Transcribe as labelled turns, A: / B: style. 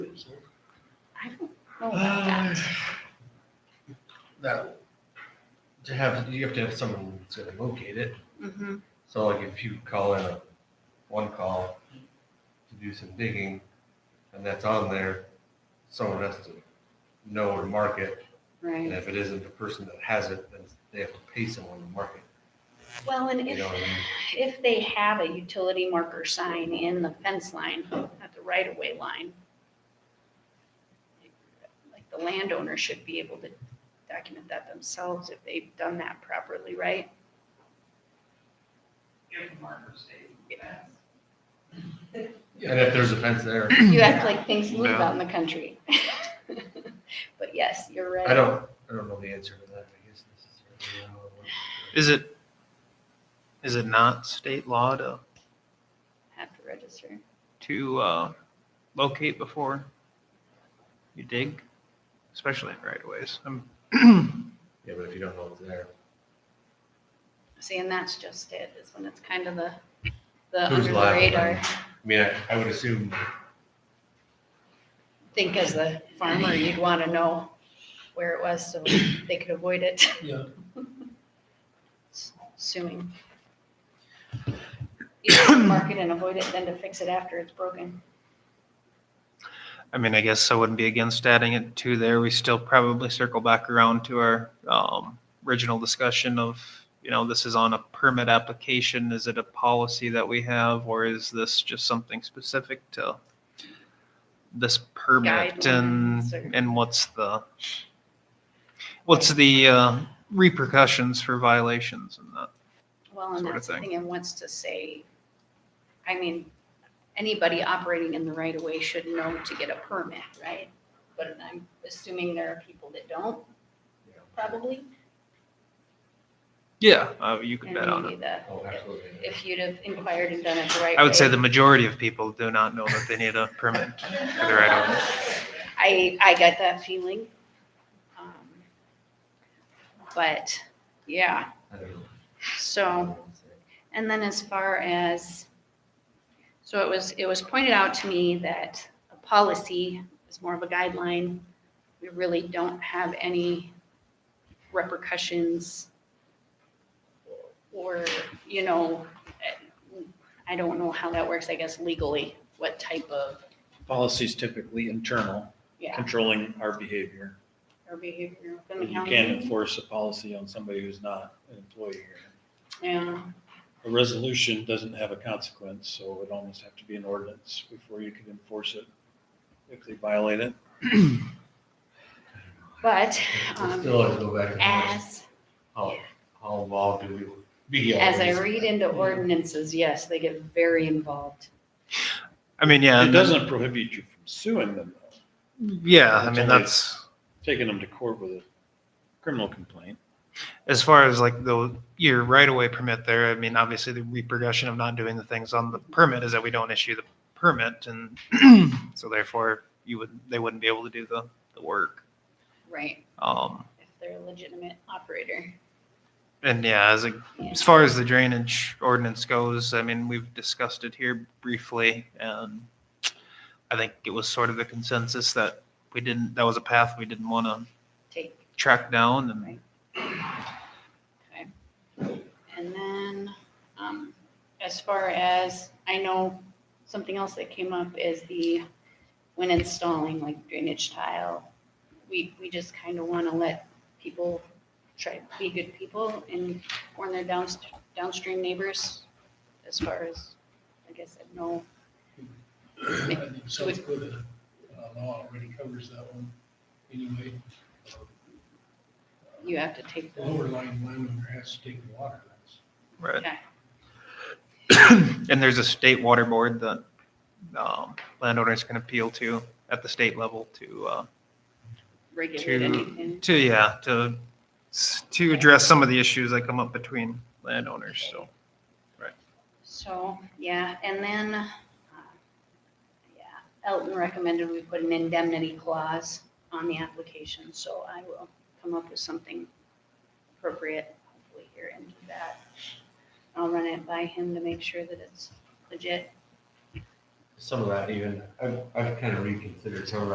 A: I don't know about that.
B: Uh, That, to have, you have to have someone that's gonna locate it,
A: hmm
B: so like if you call in a, one call to do some digging, and that's on there, someone has to know and mark it, and
A: right.
B: if it isn't the person that has it, then they have to pay someone to mark it,
A: Well, and
B: you know
A: if,
B: what I mean?
A: if they have a utility marker sign in the fence line, at the right of way line, like the landowner should be able to document that themselves if they've done that properly, right?
C: If marker state, yes.
B: And if there's a fence there,
A: You act like things move
D: Yeah.
A: out in the country. But yes, you're right.
B: I don't, I don't know the answer to that, I guess necessarily. I don't know.
D: Is it, is it not state law to,
A: Have to register.
D: to uh, locate before you dig? Especially in right of ways. I'm-
B: Yeah, but if you don't know it's there.
A: See, and that's just it, is when it's kind of the, the
B: Who's
A: under the
B: liable then?
A: radar.
B: I mean, I, I would assume
A: Think as a farmer, you'd want to know where it was so they could avoid it.
B: Yeah.
A: Suing. Either Mark it and avoid it than to fix it after it's broken.
D: I mean, I guess I wouldn't be against adding it to there. We still probably circle back around to our um, original discussion of, you know, this is on a permit application. Is it a policy that we have or is this just something specific to this permit and,
A: Guidelines or-
D: and what's the, what's the uh, repercussions for violations and that?
A: Well, and
D: sort of
A: that's the
D: thing.
A: thing, and wants to say, I mean, anybody operating in the right of way should know to get a permit, right? But I'm assuming there are people that don't,
B: you know,
A: probably.
D: Yeah, uh, you could
A: And
D: bet on
A: maybe
D: it.
A: the,
B: Oh, absolutely.
A: if you'd have inquired and done it the right way.
D: I would say the majority of people do not know that they need a permit for the right of way.
A: Um, I, I got that feeling. Um, But, yeah,
B: I don't know.
A: so, and then as far as, so it was, it was pointed out to me that a policy is more of a guideline. We really don't have any repercussions or, you know, I don't know how that works, I guess legally, what type of,
E: Policy's typically internal,
A: yeah,
E: controlling our behavior.
A: or behavior within the
E: You
A: county.
E: can't enforce a policy on somebody who's not an employee here.
A: Yeah,
E: A resolution doesn't have a consequence, so it would almost have to be an ordinance before you could enforce it if they violate it.
A: but,
B: We
A: um,
B: Still have to go back and ask
A: as,
B: how, how involved do we be?
A: as I read into ordinances, yes, they get very involved.
D: I mean, yeah.
E: It
D: and then-
E: doesn't prohibit you from suing them, though,
D: Yeah, I
E: It's
D: mean,
E: only-
D: that's
E: taking them to court with a criminal complaint.
D: as far as like the your right away permit there. I mean, obviously the repercussion of not doing the things on the permit is that we don't issue the permit and so therefore you would, they wouldn't be able to do the, the work.
A: Right.
D: Um,
A: If they're a legitimate operator.
D: and yeah, as a,
A: Yeah.
D: as far as the drainage ordinance goes, I mean, we've discussed it here briefly and I think it was sort of the consensus that we didn't, that was a path we didn't want to
A: Take,
D: track down and
A: Right. okay. And then, um, as far as, I know, something else that came up is the, when installing like drainage tile, we, we just kind of want to let people try, to be good people and warn their downst- downstream neighbors as far as, I guess, I know
F: I think South Dakota uh, law already covers that one anyway.
A: you have to take
F: The
A: the,
F: lower line landowner has to take the water lines.
D: Right.
A: Okay.
D: And there's a state water board that um, landowners can appeal to at the state level to, uh,
A: regulate
D: To-
A: anything.
D: to, yeah, to, s- to address some of the issues that come up between landowners, so.
A: So, yeah, and then, uh, yeah, Elton recommended we put an indemnity clause on the application, so I will come up with something appropriate, hopefully here and do that. I'll run it by him to make sure that it's legit.
B: Some of that even, I've, I've kind of reconsidered some of that